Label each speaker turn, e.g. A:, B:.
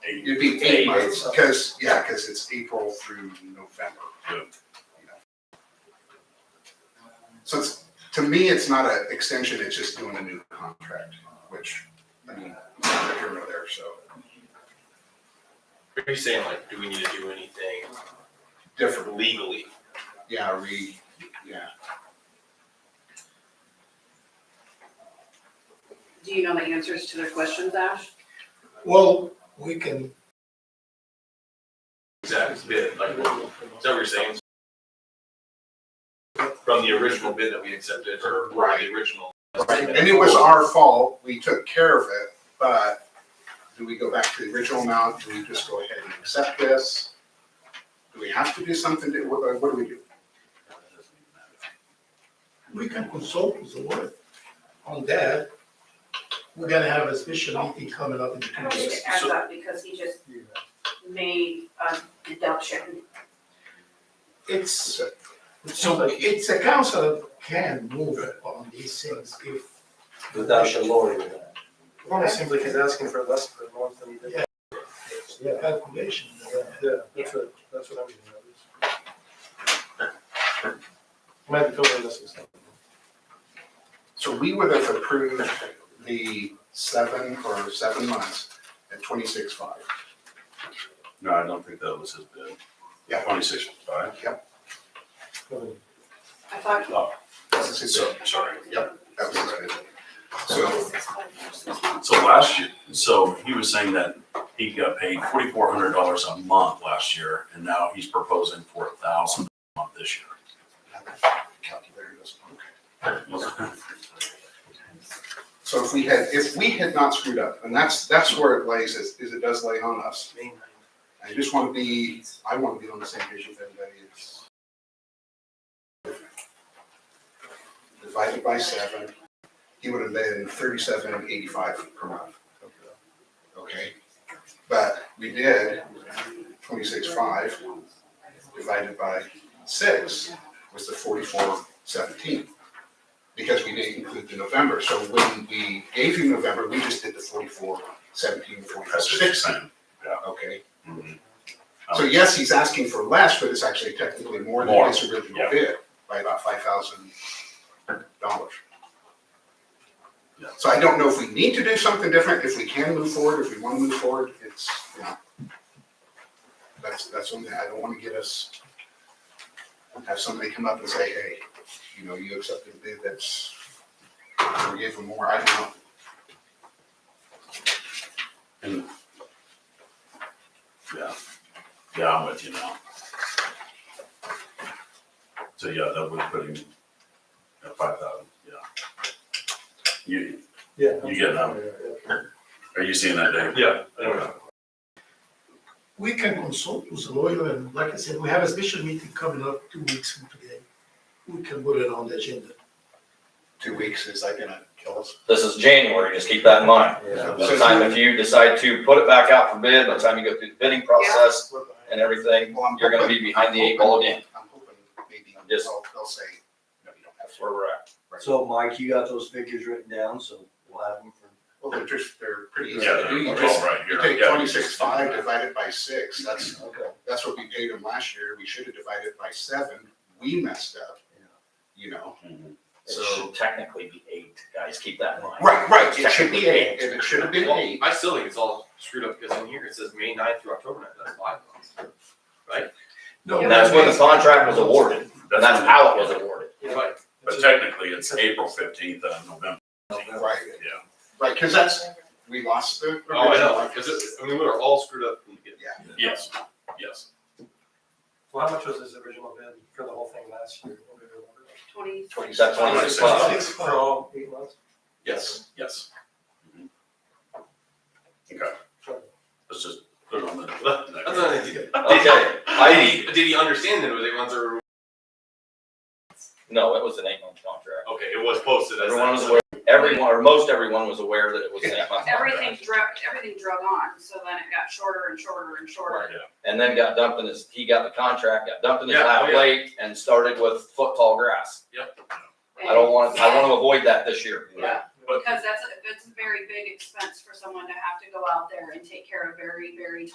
A: eight.
B: It'd be eight months, because, yeah, because it's April through November.
A: Yeah.
B: So it's, to me, it's not an extension, it's just doing a new contract, which, I mean, neither here nor there, so
C: Are you saying like, do we need to do anything
B: different.
C: legally?
B: Yeah, re, yeah.
D: Do you know the answers to their questions, Ash?
E: Well, we can,
C: Exact bid, like, what- is that what you're saying? From the original bid that we accepted or or the original.
B: Right, and it was our fault, we took care of it, but do we go back to the original amount, do we just go ahead and accept this? Do we have to do something, to- what, what do we do?
E: we can consult with the board on that. We're gonna have a special meeting coming up in
D: I
E: two
D: don't think it
E: weeks.
D: adds up because he just made a deduction.
E: It's, so it's a council that can move on these things if.
F: Without the lowering of that.
G: Well, it seems like he's asking for less per month than he did.
E: Yeah. the Calculation.
G: Yeah, that's what, that's what I'm getting at. Might be totally missing something.
B: So we would have approved the seven or seven months at twenty-six five.
A: No, I don't think that was his bid.
B: Yeah.
A: Twenty-six, five.
D: I thought.
A: Oh,
B: That's it, so
A: so, sorry.
B: Yep. that was it. So,
A: So last year, so he was saying that he got paid forty-four hundred dollars a month last year, and now he's proposing for a thousand a month this
B: calculator doesn't, okay.
A: year.
B: So if we had, if we had not screwed up, and that's, that's where it lays, is, is it does lay on us. I just want to be, I want to be on the same page with everybody. It's Divided by seven, he would have been thirty-seven eighty-five per month. Okay, but we did twenty-six five divided by six was the forty-four seventeen. Because we didn't include the November, so when we gave you November, we just did the forty-four seventeen, forty-four
A: That's what you're
B: sixteen,
A: saying.
B: okay?
A: Mhm.
B: So yes, he's asking for less, but it's actually technically more than
A: More,
B: his original
A: yeah.
B: bid by about five thousand dollars.
A: Yeah.
B: So I don't know if we need to do something different, if we can move forward, if we want to move forward, it's, you know. That's, that's one thing, I don't want to get us, have somebody come up and say, hey, you know, you accepted a bid that's, we gave them more, I don't know.
A: Yeah, yeah, I'm with you now. So, yeah, that would put him at five thousand, yeah. You,
G: Yeah.
A: You get that. are you seeing that, Dave?
C: Yeah, I don't know.
E: We can consult with the lawyer and like I said, we have a special meeting coming up two weeks from today. We can put it on the agenda.
B: Two weeks, is that gonna kill us?
F: This is January, just keep that in mind.
G: Yeah.
F: By the time if you decide to put it back out for bid, by the time you go through the bidding process and everything,
B: Well, I'm
F: you're gonna
B: hoping-
F: be behind the eight ball again.
B: I'm hoping maybe
F: I'm just-
B: they'll, they'll say, no, you don't have
F: That's
B: to.
F: where we're at.
H: So Mike, you got those figures written down, so we'll have them for.
B: Well, they're just, they're pretty easy
A: Yeah,
B: to do. You
A: they're all
B: just,
A: right
B: you
A: here.
B: take
A: Yeah,
B: twenty-six five
A: just-
B: divided by six, that's,
H: Okay.
B: that's what we paid them last year. We should have divided by seven. We messed up,
H: Yeah.
B: you know?
A: Mhm.
F: It
B: So-
F: should technically be eight, guys, keep that in mind.
B: Right, right, it should be eight, and it should have been
C: Well,
B: eight.
C: I still think it's all screwed up because in here it says May ninth through October ninth, that's five months.
F: And that's when the contract was awarded, and that's
A: when-
F: how it was awarded.
C: Right,
A: But technically, it's April fifteenth of November,
B: Right,
A: yeah.
B: right, because that's, we lost the original.
C: oh, I know, because it, I mean, we were all screwed up from the beginning.
A: Yes, yes.
G: Well, how much was his original bid for the whole thing last year?
D: Twenty,
B: Twenty-
F: That's twenty-six five.
E: Six,
G: For all eight months?
A: Yes, yes. Mhm. Okay. Let's just put it on the.
C: That's not an idea.
F: Okay,
C: Did he,
F: I,
C: did he understand that it was eight months or,
F: no, it was an eight-month contract.
C: okay, it was posted as.
F: Everyone was aware, everyone, or most everyone was aware that it was an eight-month contract.
D: everything drug, everything drug on, so then it got shorter and shorter and shorter.
A: Yeah.
F: and then got dumped in his, he got the contract, got dumped in his
C: Yeah, oh,
F: lap
C: yeah.
F: late and started with foot tall grass.
D: And-
F: I don't want, I want to avoid that this year.
D: Yeah,
A: But-
D: because that's, a- it's very big expense for someone to have to go out there and take care of very, very